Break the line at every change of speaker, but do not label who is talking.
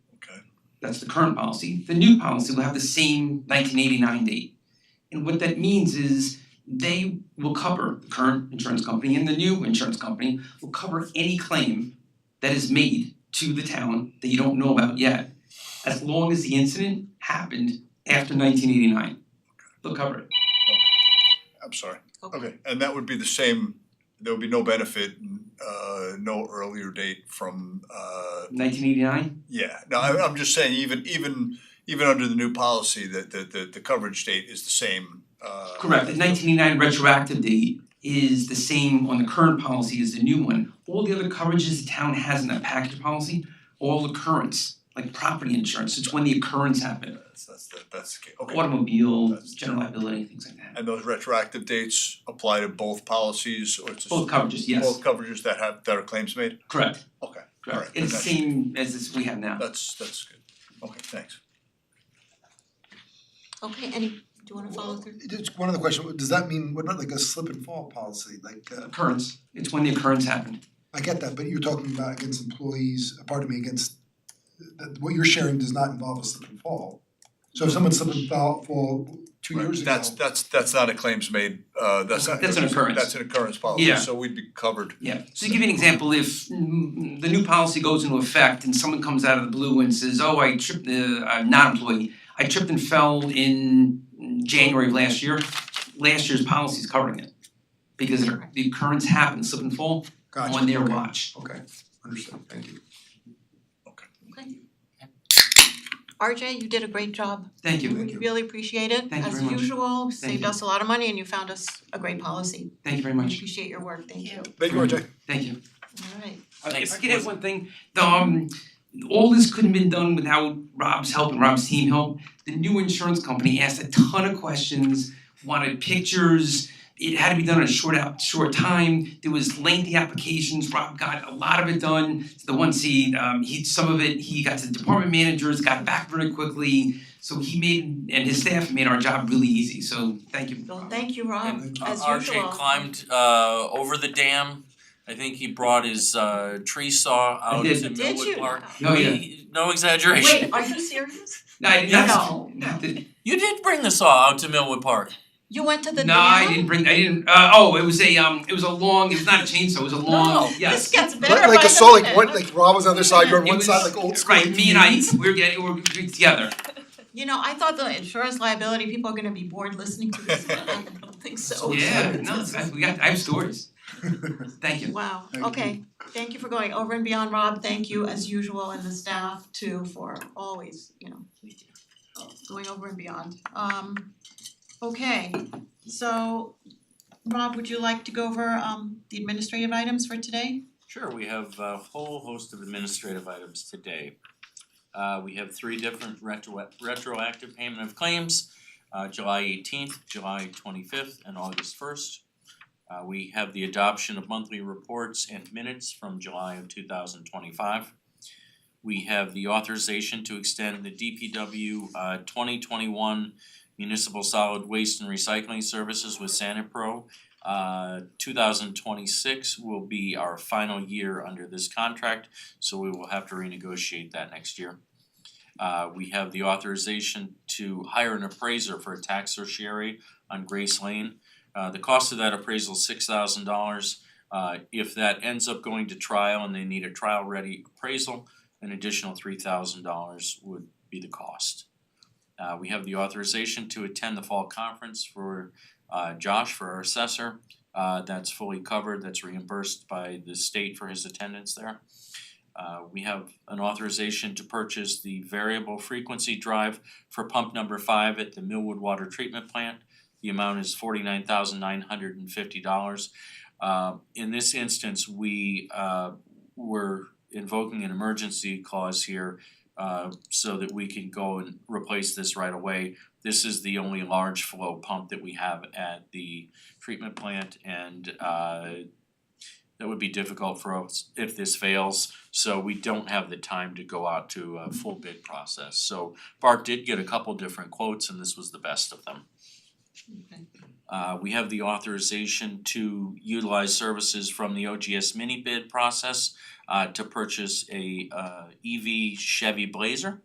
That's the current policy. The new policy will have the same nineteen eighty-nine date. And what that means is they will cover, the current insurance company and the new insurance company will cover any claim that is made to the town that you don't know about yet, as long as the incident happened after nineteen eighty-nine. They'll cover it.
I'm sorry.
Okay.
and that would be the same, there would be no benefit, uh no earlier date from uh
Nineteen eighty-nine?
yeah. No, I I'm just saying even even even under the new policy that the the the coverage date is the same uh
Correct, the nineteen eighty-nine retroactive date is the same on the current policy as the new one. All the other coverages the town has in that package policy, all occurrence, like property insurance, it's when the occurrence happened.
That's that's the that's the case. Okay.
Automobile, general liability, things like that.
And those retroactive dates apply to both policies or it's just
Both coverages, yes,
both coverages that have that are claims made?
correct,
Okay,
correct.
Alright,
It's the
that's-
same as this we have now.
that's that's good. Okay, thanks.
Okay, any, do you wanna follow through?
Just one other question, does that mean, what about like a slip and fall policy, like uh
Occurrence, it's when the occurrence happened.
I get that, but you're talking about against employees, uh, pardon me, against that what you're sharing does not involve a slip and fall. So if someone slipped and fell fall two
Right,
years ago,
That's that's that's not a claims made, uh that's not.
That's an occurrence.
That's an occurrence policy,
Yeah.
so we'd be covered.
Mm-hmm.
Yeah, so to give you an example, if mm, the new policy goes into effect and someone comes out of the blue and says, oh, I tripped, uh, I'm not employee, I tripped and fell in January of last year, last year's policy is covering it. Because it- the occurrence happened, slip and fall,
gotcha,
on their
okay,
watch.
Okay, understood, thank you.
Okay. RJ, you did a great job.
Thank you,
We really appreciate it.
Thank you
As
very much.
usual, saved
you.
us a lot of money and you found us a great policy.
thank you very
We
much,
appreciate your work. Thank you.
Thank you, RJ.
thank you.
All right.
Uh, If I could add one thing, the, um, all this couldn't have been done without Rob's help and Rob's team help. The new insurance company asked a ton of questions, wanted pictures. It had to be done in a short out, short time. There was lengthy applications. Rob got a lot of it done. The ones he, um, he, some of it, he got to the department managers, got back very quickly. So he made, and his staff made our job really easy, so thank you.
Well,
Rob.
thank you, Rob.
Thank you.
As
Uh,
usual.
RJ climbed uh over the dam. I think he brought his uh tree saw
I
out
did.
to
Did
Millwood
you?
Park.
Oh, yeah.
He- No exaggeration.
Wait, are you serious?
No, I did not.
No, no.
You did bring the saw out to Millwood Park.
You went to the
No,
dam?
I didn't bring. I didn't. Uh, oh, it was a um. It was a long. It was not a chainsaw. It was a long.
No.
Yes.
This gets better by the
Like
minute.
like a saw, like one, like Rob was on the other side, you're on
It
one
was-
side, like old school.
Right, me and I, we were getting, we were together.
You know, I thought the insurance liability people are gonna be bored listening to this, but I don't think so.
So-
Yeah, no, I, we got, I have stories. Thank you.
Wow,
Thank you.
okay, thank you for going over and beyond, Rob, thank you as usual and the staff too for always, you know, going over and beyond. Um okay, so Rob, would you like to go over um the administrative items for today?
Sure, we have a whole host of administrative items today. Uh we have three different retro- retroactive payment of claims, uh July eighteenth, July twenty-fifth, and August first. Uh we have the adoption of monthly reports and minutes from July of two thousand twenty-five. We have the authorization to extend the DPW uh twenty twenty-one municipal solid waste and recycling services with Sanipro uh two thousand twenty six will be our final year under this contract, so we will have to renegotiate that next year. Uh we have the authorization to hire an appraiser for a tax certiorari on Grace Lane. Uh the cost of that appraisal is six thousand dollars. Uh if that ends up going to trial and they need a trial ready appraisal, an additional three thousand dollars would be the cost. Uh we have the authorization to attend the fall conference for uh Josh for our assessor. Uh that's fully covered, that's reimbursed by the state for his attendance there. Uh we have an authorization to purchase the variable frequency drive for pump number five at the Millwood Water Treatment Plant. The amount is forty nine thousand nine hundred and fifty dollars. Uh in this instance, we uh were invoking an emergency clause here uh so that we can go and replace this right away. This is the only large flow pump that we have at the treatment plant and uh that would be difficult for us if this fails, so we don't have the time to go out to a full bid process. So Bart did get a couple different quotes and this was the best of them.
Okay.
Uh we have the authorization to utilize services from the OGS mini bid process uh to purchase a uh EV E Chevy Blazer.